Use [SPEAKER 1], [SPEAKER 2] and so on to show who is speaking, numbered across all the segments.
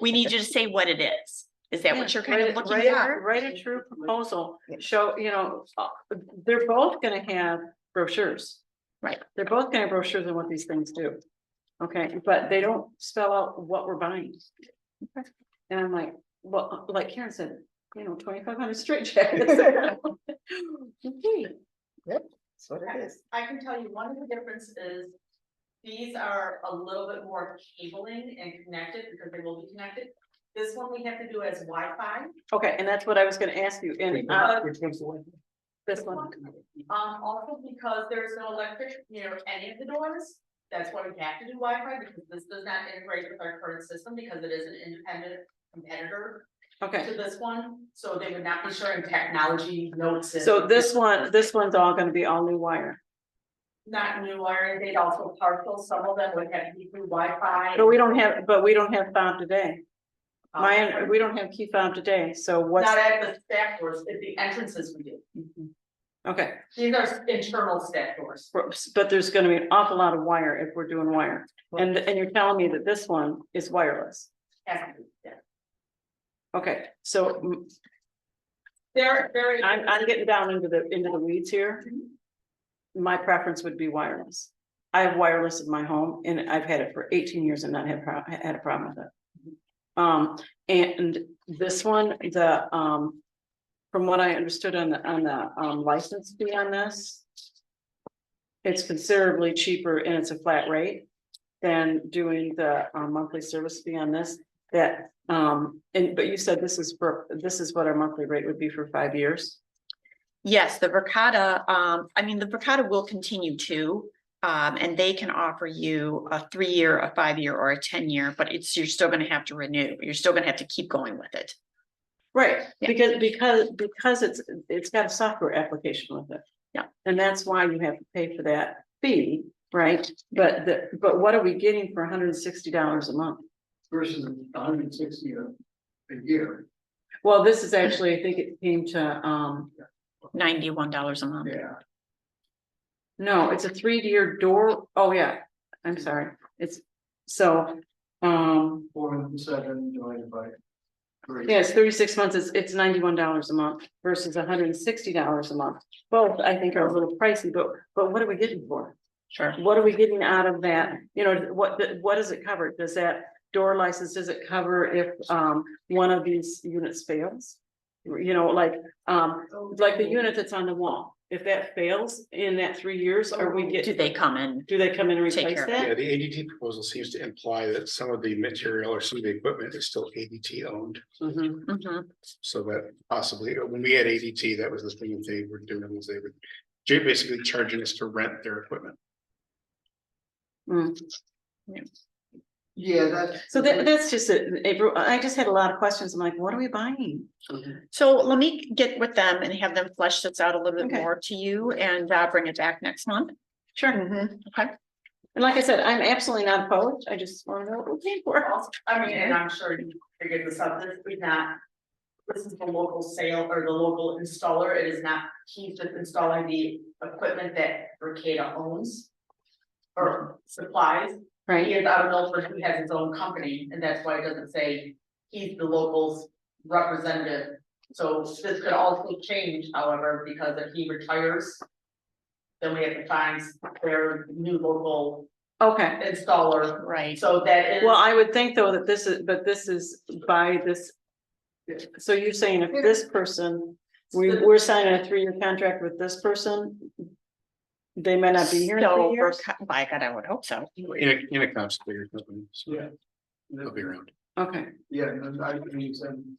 [SPEAKER 1] we need you to say what it is. Is that what you're kind of
[SPEAKER 2] Write a-
[SPEAKER 1] looking
[SPEAKER 2] write a-
[SPEAKER 1] for?
[SPEAKER 2] Write a true proposal, show, you know, uh, they're both gonna have brochures.
[SPEAKER 1] Right.
[SPEAKER 2] They're both gonna have brochures on what these things do. Okay, but they don't spell out what we're buying. And I'm like, well, like Karen said, you know, twenty-five hundred straight jackets.
[SPEAKER 3] That's what it is.
[SPEAKER 4] I can tell you one of the differences is. These are a little bit more cabling and connected because they will be connected. This one we have to do as Wi-Fi.
[SPEAKER 2] Okay, and that's what I was gonna ask you,
[SPEAKER 3] Which
[SPEAKER 2] and, uh,
[SPEAKER 3] one- which one's the one?
[SPEAKER 2] this one,
[SPEAKER 4] Um, also because there's no electric near any of the doors, that's why we have to do Wi-Fi because this does not integrate with our current system because it is an independent competitor
[SPEAKER 2] okay.
[SPEAKER 4] to this one, so they would not be sharing technology notes. and-
[SPEAKER 2] So this one, this one's all gonna be all new wire,
[SPEAKER 4] Not new wiring, they'd also partial, some of them would have to be through Wi-Fi.
[SPEAKER 2] but we don't have, but we don't have found today.
[SPEAKER 4] um,
[SPEAKER 2] My, we don't have key fob today, so what's,
[SPEAKER 4] Not at the staff doors, at the entrances we do.
[SPEAKER 2] okay,
[SPEAKER 4] These are internal staff doors.
[SPEAKER 2] but there's gonna be an awful lot of wire if we're doing wire. And, and you're telling me that this one is wireless.
[SPEAKER 4] Has to be, yeah.
[SPEAKER 2] Okay, so mm,
[SPEAKER 4] They're very.
[SPEAKER 2] I'm, I'm getting down into the, into the weeds here. My preference would be wireless. I have wireless in my home and I've had it for eighteen years and not had, pro- had a problem with it. Um, and this one, the, um, from what I understood on the, on the, um, license fee on this. It's considerably cheaper and it's a flat rate than doing the, um, monthly service fee on this. That, um, and, but you said this is for, this is what our monthly rate would be for five years.
[SPEAKER 1] Yes, the Verkada, um, I mean, the Verkada will continue to. Um, and they can offer you a three-year, a five-year, or a ten-year, but it's, you're still gonna have to renew. You're still gonna have to keep going with it.
[SPEAKER 2] Right,
[SPEAKER 1] Yeah.
[SPEAKER 2] because, because, because it's, it's got a software application with it.
[SPEAKER 1] Yeah.
[SPEAKER 2] And that's why you have to pay for that fee, right? But the, but what are we getting for hundred and sixty dollars a month?
[SPEAKER 3] Versus hundred and sixty a, a year,
[SPEAKER 2] Well, this is actually, I think it came to, um,
[SPEAKER 1] Ninety-one dollars a month.
[SPEAKER 3] yeah.
[SPEAKER 2] no, it's a three-year door, oh yeah, I'm sorry, it's, so, um,
[SPEAKER 3] Four hundred and seven divided by. three.
[SPEAKER 2] yeah, it's thirty-six months, it's, it's ninety-one dollars a month versus hundred and sixty dollars a month. Both, I think, are a little pricey, but, but what are we getting for? it?
[SPEAKER 1] Sure.
[SPEAKER 2] What are we getting out of that? You know, what, what does it cover? Does that door license, does it cover if, um, one of these units fails? You know, like, um, like the unit that's on the wall, if that fails in that three years, are we
[SPEAKER 1] Do
[SPEAKER 2] get,
[SPEAKER 1] they come in?
[SPEAKER 2] do they come in and
[SPEAKER 1] Take care
[SPEAKER 2] replace
[SPEAKER 1] of it.
[SPEAKER 5] Yeah,
[SPEAKER 2] that?
[SPEAKER 5] the ADT proposal seems to imply that some of the material or some of the equipment is still ADT owned,
[SPEAKER 2] Mhm.
[SPEAKER 1] Mhm.
[SPEAKER 5] so that possibly, uh, when we had ADT, that was the thing that they were doing, was they were. ju- basically charging us to rent their equipment.
[SPEAKER 2] Mm.
[SPEAKER 3] Yeah, that's.
[SPEAKER 2] So that, that's just it, April, I just had a lot of questions, I'm like, what are we buying?
[SPEAKER 1] So let me get with them and have them flesh this out a little bit
[SPEAKER 2] Okay.
[SPEAKER 1] more to you and uh, bring it back next month.
[SPEAKER 2] Sure.
[SPEAKER 1] Okay.
[SPEAKER 2] And like I said, I'm absolutely not opposed, I just wanna know what we're paying for.
[SPEAKER 4] Also, I mean, and I'm sure you figured this out, this is not. This is the local sale or the local installer, it is not, he's just installing the equipment that Mercado owns. Or supplies, he
[SPEAKER 2] Right,
[SPEAKER 4] is out of Milford, he has his own company, and that's why it doesn't say he's the locals representative. So this could also change, however, because if he retires. Then we have to find their new local
[SPEAKER 2] okay.
[SPEAKER 4] installer,
[SPEAKER 1] Right.
[SPEAKER 4] so that is.
[SPEAKER 2] Well, I would think though that this is, but this is by this. So you're saying if this person, we, we're signing a three-year contract with this person? They might not be here in
[SPEAKER 1] So
[SPEAKER 2] three years?
[SPEAKER 1] Verka- By God, I would hope so.
[SPEAKER 5] In a, in a comp figure company, so
[SPEAKER 3] Yeah.
[SPEAKER 5] they'll be around.
[SPEAKER 2] Okay,
[SPEAKER 3] Yeah, and I can use them.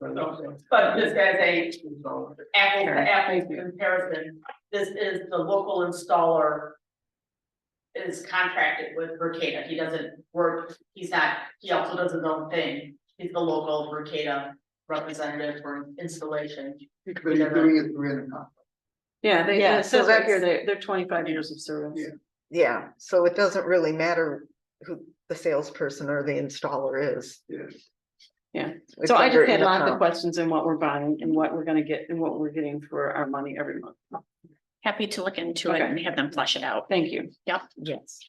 [SPEAKER 3] But no,
[SPEAKER 4] But just as a
[SPEAKER 3] so-
[SPEAKER 4] apple
[SPEAKER 2] Sure,
[SPEAKER 4] to apple
[SPEAKER 2] thank you.
[SPEAKER 4] comparison, this is the local installer. Is contracted with Verkada, he doesn't work, he's not, he also does his own thing, he's the local Verkada representative for installation.
[SPEAKER 3] But you're doing it three and a half.
[SPEAKER 2] yeah, they,
[SPEAKER 6] Yeah,
[SPEAKER 2] it says
[SPEAKER 6] so
[SPEAKER 2] right here,
[SPEAKER 6] it's-
[SPEAKER 2] they, they're twenty-five years of service.
[SPEAKER 3] Yeah.
[SPEAKER 6] Yeah, so it doesn't really matter who the salesperson or the installer is.
[SPEAKER 3] Yeah.
[SPEAKER 2] Yeah.
[SPEAKER 6] It's
[SPEAKER 2] So I
[SPEAKER 6] under
[SPEAKER 2] just had
[SPEAKER 6] in
[SPEAKER 2] lots of
[SPEAKER 6] account.
[SPEAKER 2] questions in what we're buying and what we're gonna get and what we're getting for our money every month.
[SPEAKER 1] Happy to look into it
[SPEAKER 2] Okay.
[SPEAKER 1] and have them flesh it out.
[SPEAKER 2] Thank you.
[SPEAKER 1] Yep.
[SPEAKER 2] Yes.